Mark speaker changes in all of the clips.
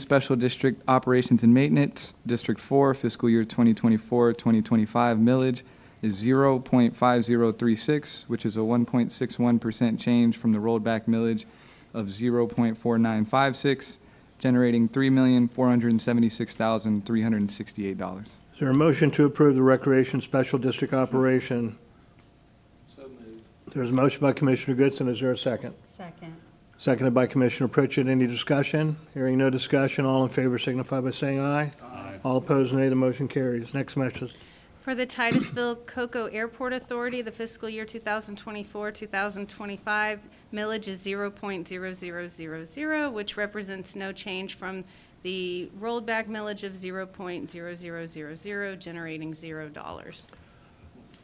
Speaker 1: Special District Operations and Maintenance, District 4, fiscal year 2024-2025 millage is 0.5036, which is a 1.61% change from the rolled-back millage of 0.4956, generating $3,476,368.
Speaker 2: Is there a motion to approve the Recreation Special District Operation? So moved. There's a motion by Commissioner Goodson. Is there a second?
Speaker 3: Second.
Speaker 2: Seconded by Commissioner Pritchett. Any discussion? Hearing no discussion, all in favor signify by saying aye. Aye. All opposed, nay. The motion carries. Next message.
Speaker 4: For the Titusville Cocoa Airport Authority, the fiscal year 2024-2025 millage is 0.0000, which represents no change from the rolled back millage of 0.0000, generating $0.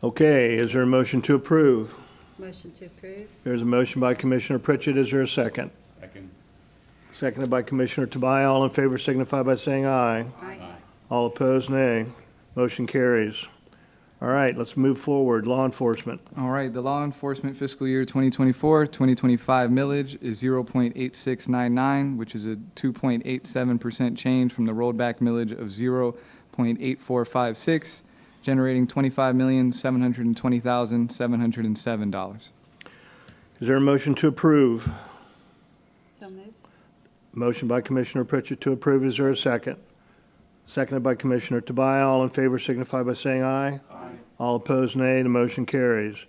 Speaker 2: Okay, is there a motion to approve?
Speaker 3: Motion to approve?
Speaker 2: There's a motion by Commissioner Pritchett. Is there a second?
Speaker 5: Second.
Speaker 2: Seconded by Commissioner Tobias. All in favor signify by saying aye.
Speaker 3: Aye.
Speaker 2: All opposed, nay. Motion carries. All right, let's move forward. Law enforcement.
Speaker 1: All right, the law enforcement fiscal year 2024, 2025 millage is 0.8699, which is a 2.87% change from the rolled back millage of 0.8456, generating $25,720,707.
Speaker 2: Is there a motion to approve?
Speaker 3: So moved?
Speaker 2: Motion by Commissioner Pritchett to approve. Is there a second? Seconded by Commissioner Tobias. All in favor signify by saying aye. Aye. All opposed, nay. The motion carries.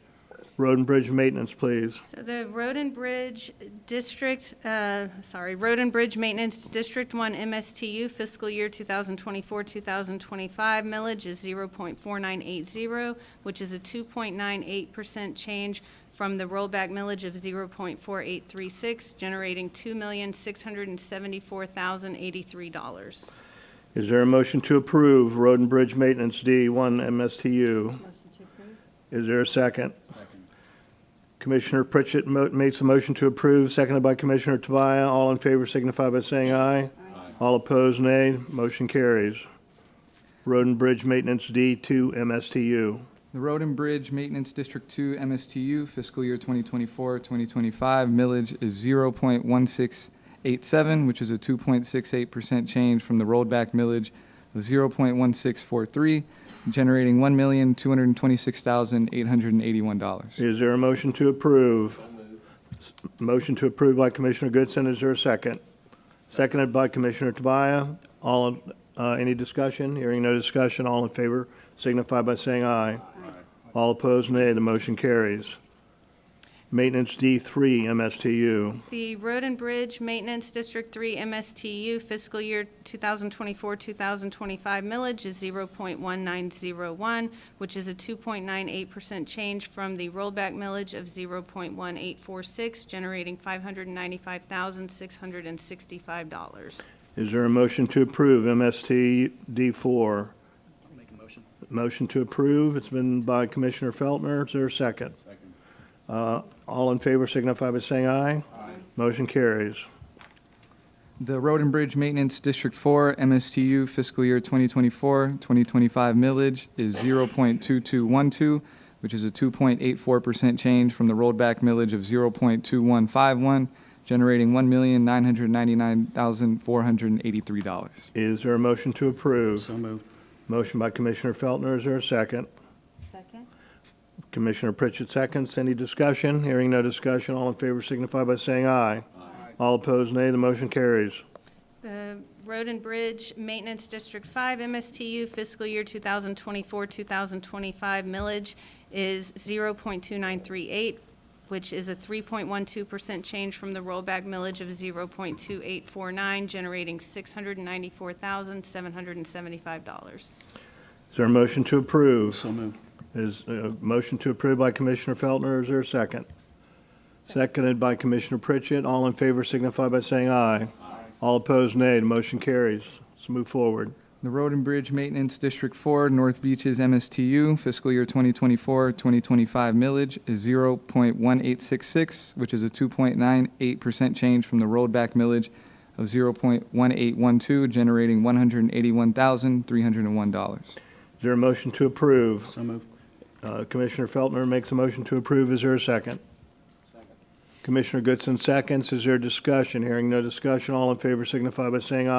Speaker 2: Road and Bridge Maintenance, please.
Speaker 4: So the Road and Bridge District, uh, sorry, Road and Bridge Maintenance District One MSTU fiscal year 2024, 2025 millage is 0.4980, which is a 2.98% change from the rollback millage of 0.4836, generating $2,674,083.
Speaker 2: Is there a motion to approve Road and Bridge Maintenance D1 MSTU?
Speaker 3: Motion to approve?
Speaker 2: Is there a second?
Speaker 5: Second.
Speaker 2: Commissioner Pritchett mo- makes a motion to approve, seconded by Commissioner Tobias. All in favor signify by saying aye.
Speaker 5: Aye.
Speaker 2: All opposed, nay. Motion carries. Road and Bridge Maintenance D2 MSTU.
Speaker 1: The Road and Bridge Maintenance District 2 MSTU fiscal year 2024, 2025 millage is 0.1687, which is a 2.68% change from the rolled back millage of 0.1643, generating $1,226,881.
Speaker 2: Is there a motion to approve? S- Motion to approve by Commissioner Goodson, is there a second? Seconded by Commissioner Tobias. All, in- uh, any discussion? Hearing no discussion, all in favor signify by saying aye. All opposed, nay. The motion carries. Maintenance D3 MSTU.
Speaker 4: The Road and Bridge Maintenance District 3 MSTU fiscal year 2024-2025 millage is 0.1901, which is a 2.98% change from the rollback millage of 0.1846, generating $595,665.
Speaker 2: Is there a motion to approve MST D4?
Speaker 5: I'll make a motion.
Speaker 2: Motion to approve, it's been by Commissioner Feltner, is there a second? Uh,
Speaker 5: Second.
Speaker 2: All in favor signify by saying aye.
Speaker 5: Aye.
Speaker 2: Motion carries.
Speaker 1: The Road and Bridge Maintenance District 4 MSTU fiscal year 2024, 2025 millage is 0.2212, which is a 2.84% change from the rolled back millage of 0.2151, generating $1,999,483.
Speaker 2: Is there a motion to approve?
Speaker 5: So moved.
Speaker 2: Motion by Commissioner Feltner, is there a second?
Speaker 3: Second?
Speaker 2: Commissioner Pritchett seconds, any discussion? Hearing no discussion, all in favor signify by saying aye.
Speaker 5: Aye.
Speaker 2: All opposed, nay, the motion carries.
Speaker 4: The Road and Bridge Maintenance District 5 MSTU fiscal year 2024-2025 millage is 0.2938, which is a 3.12% change from the rollback millage of 0.2849, generating $694,775.
Speaker 2: Is there a motion to approve?
Speaker 5: So moved.
Speaker 2: Is, uh, motion to approve by Commissioner Feltner, is there a second? Seconded by Commissioner Pritchett, all in favor signify by saying aye. Aye. All opposed, nay, the motion carries. Let's move forward.
Speaker 1: The Road and Bridge Maintenance District 4, North Beaches MSTU, fiscal year 2024, 2025 millage is 0.1866, which is a 2.98% change from the rollback millage of 0.1812, generating $181,301.
Speaker 2: Is there a motion to approve?
Speaker 5: So moved.
Speaker 2: Uh, Commissioner Feltner makes a motion to approve. Is there a second? Commissioner Goodson seconds. Is there discussion? Hearing no discussion, all in favor signify by saying aye.